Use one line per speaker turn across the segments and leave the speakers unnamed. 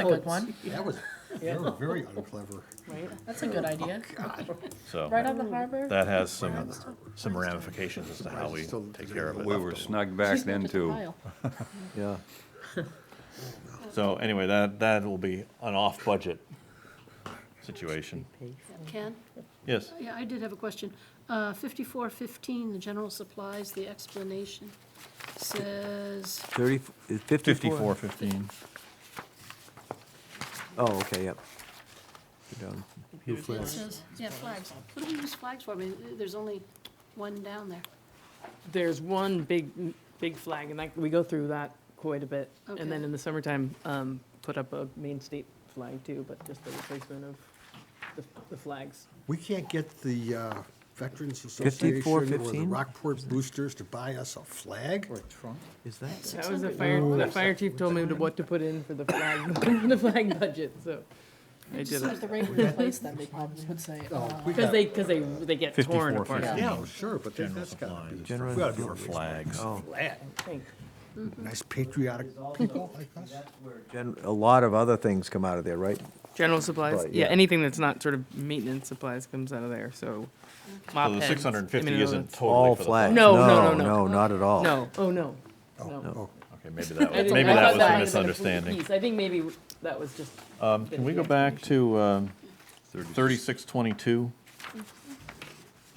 a good one.
That was, they were very unclever.
That's a good idea. Right
So
on the harbor.
that has some, some ramifications as to how we
Still-
take care of
We
it.
were snug back then too.
Yeah.
So anyway, that, that will be an off-budget situation.
Ken?
Yes,
Yeah, I did have a question. Uh, 5415, the general supplies, the explanation says,
30, is 54?
fifty-four fifteen.
Oh, okay, yep. Go down.
it says, yeah, flags. What do we use flags for? I mean, there's only one down there.
There's one big, big flag, and that, we go through that quite a bit. And then
Okay.
in the summertime, um, put up a Maine State flag too, but just the replacement of the, the flags.
We can't get the uh, Veterans Association or the
54-15?
Rockport Boosters to buy us a flag?
Is that,
That was the fire, the fire chief told me to what to put in for the flag, the flag budget, so I did
If
it.
the rate would replace them, they probably would say,
Oh, we
Because
got,
they, because they, they get torn
54,
apart.
50.
yeah, well, sure, but that- that's gotta be,
General
we gotta do a
supplies.
Flags.
oh,
flag.
Thank-
Nice patriotic people like us.
gen, a lot of other things come out of there, right?
General supplies,
Right,
yeah,
yeah.
anything that's not sort of maintenance supplies comes out of there, so.
So
mop
the
heads,
six hundred and fifty
I mean,
isn't totally
All
for the flag.
flags.
No, no, no, no.
No, not at all.
No, oh, no, no.
Oh,
Okay, maybe that
I
was,
didn't-
maybe
I thought might have
that was a
been complete
misunderstanding.
piece. I think maybe that was just,
Um, can we go back to, um, thirty-six twenty-two?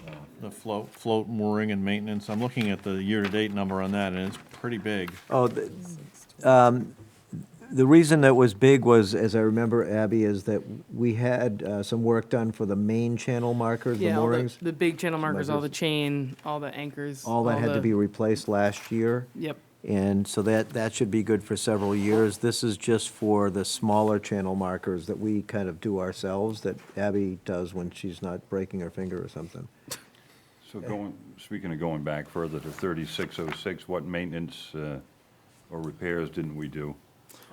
Uh, The float, float mooring and maintenance. I'm looking at the year-to-date number on that and it's pretty big.
Oh, the, um, the reason that was big was, as I remember, Abby, is that we had, uh, some work done for the main channel marker, the
yeah, all the,
moorings.
the big channel markers, all the
Markers.
chain, all the anchors.
All that had to
the-
be replaced last year.
Yep,
And so that, that should be good for several years. This is just for the smaller channel markers that we kind of do ourselves, that Abby does when she's not breaking her finger or something.
So going, speaking of going back further to thirty-six oh six, what maintenance uh, or repairs didn't we do?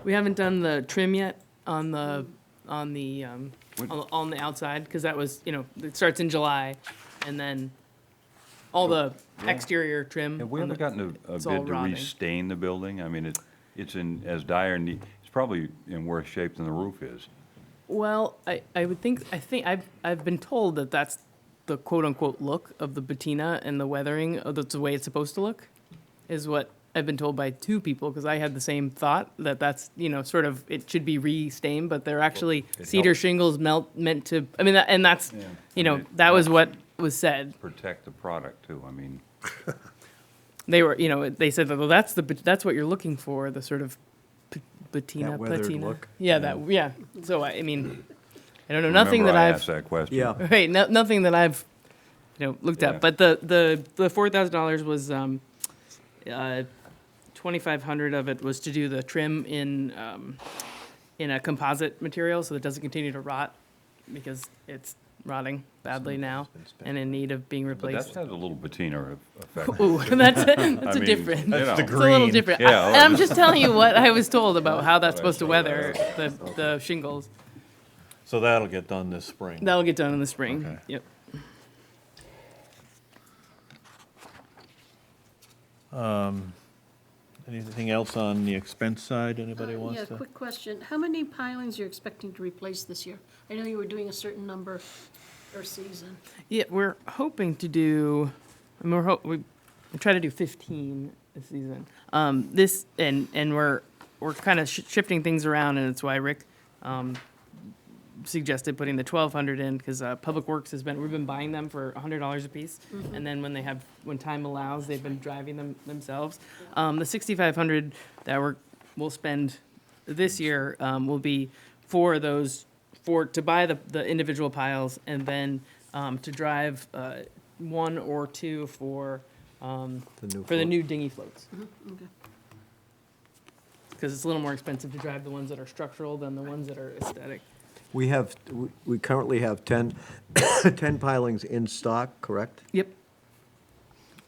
we haven't done the trim yet on the, on the, um,
When-
on, on the outside, because that was, you know, it starts in July, and then all the exterior trim.
Have we
on
ever
the-
gotten a- a
it's all
bid to
rotting.
restain the building? I mean, it, it's in as dire need, it's probably in worse shape than the roof is.
Well, I, I would think, I think, I've, I've been told that that's the quote-unquote look of the patina and the weathering, of that's the way it's supposed to look, is what I've been told by two people, because I had the same thought, that that's, you know, sort of, it should be re-stained, but they're actually
it
cedar
helps.
shingles melt, meant to, I mean, that- and that's,
Yeah.
you
And
know,
it
that was what was said.
Protect the product too, I mean,
They were, you know, they said, well, that's the, pat- that's what you're looking for, the sort of pa- patina,
That weathered
patina.
look.
Yeah, that, yeah, so I, I mean, I don't know, nothing
remember
that
I
I've.
asked that question.
Right, no, nothing that I've, you know, looked
Yeah.
at, but the, the, the four thousand dollars was, um, uh, twenty-five hundred of it was to do the trim in, um, in a composite material, so that it doesn't continue to rot, because it's rotting badly now, and in need of being
But that
replaced.
has a little patina e-, effect.
Ooh, that's, that's a
mean,
different.
you That's the
It's a little
green.
different.
Yeah,
I- I'm just telling you what I was told about how that's
That's what I
supposed to
saw that.
weather the, the shingles.
So that'll get done this spring.
That'll get done in the spring,
Okay.
yep.
Anything else on the expense side anybody
Uh,
wants
Yeah,
to?
quick question. How many pilings you're expecting to replace this year? I know you were doing a certain number per season.
Yeah, we're hoping to do. I mean, we're ho- we, we try to do 15 this season. Um, this and and we're we're kind of sh- shifting things around, and it's why Rick um, suggested putting the 1,200 in because uh, Public Works has been we've been buying them for $100 a piece, and then when they have when time allows, they've been driving them themselves. Um, the 6,500 that we're we'll spend this year um, will be for those for to buy the, the individual piles and then um, to drive uh, one or two for um,
The new
for the
float.
new dinghy floats
Okay.
because it's a little more expensive to drive the ones that are structural than the ones that are aesthetic.
We have, we- we currently have 10, 10 pilings in stock, correct?
Yep.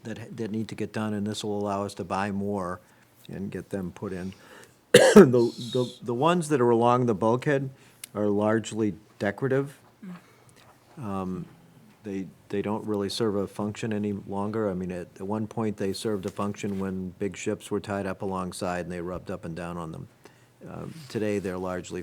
That, ha- that need to get done, and this will allow us to buy more and get them put in. The, the, the ones that are along the bulkhead are largely decorative. Um, They, they don't really serve a function any longer. I mean, at, at one point, they served a function when big ships were tied up alongside and they rubbed up and down on them. Um, Today, they're largely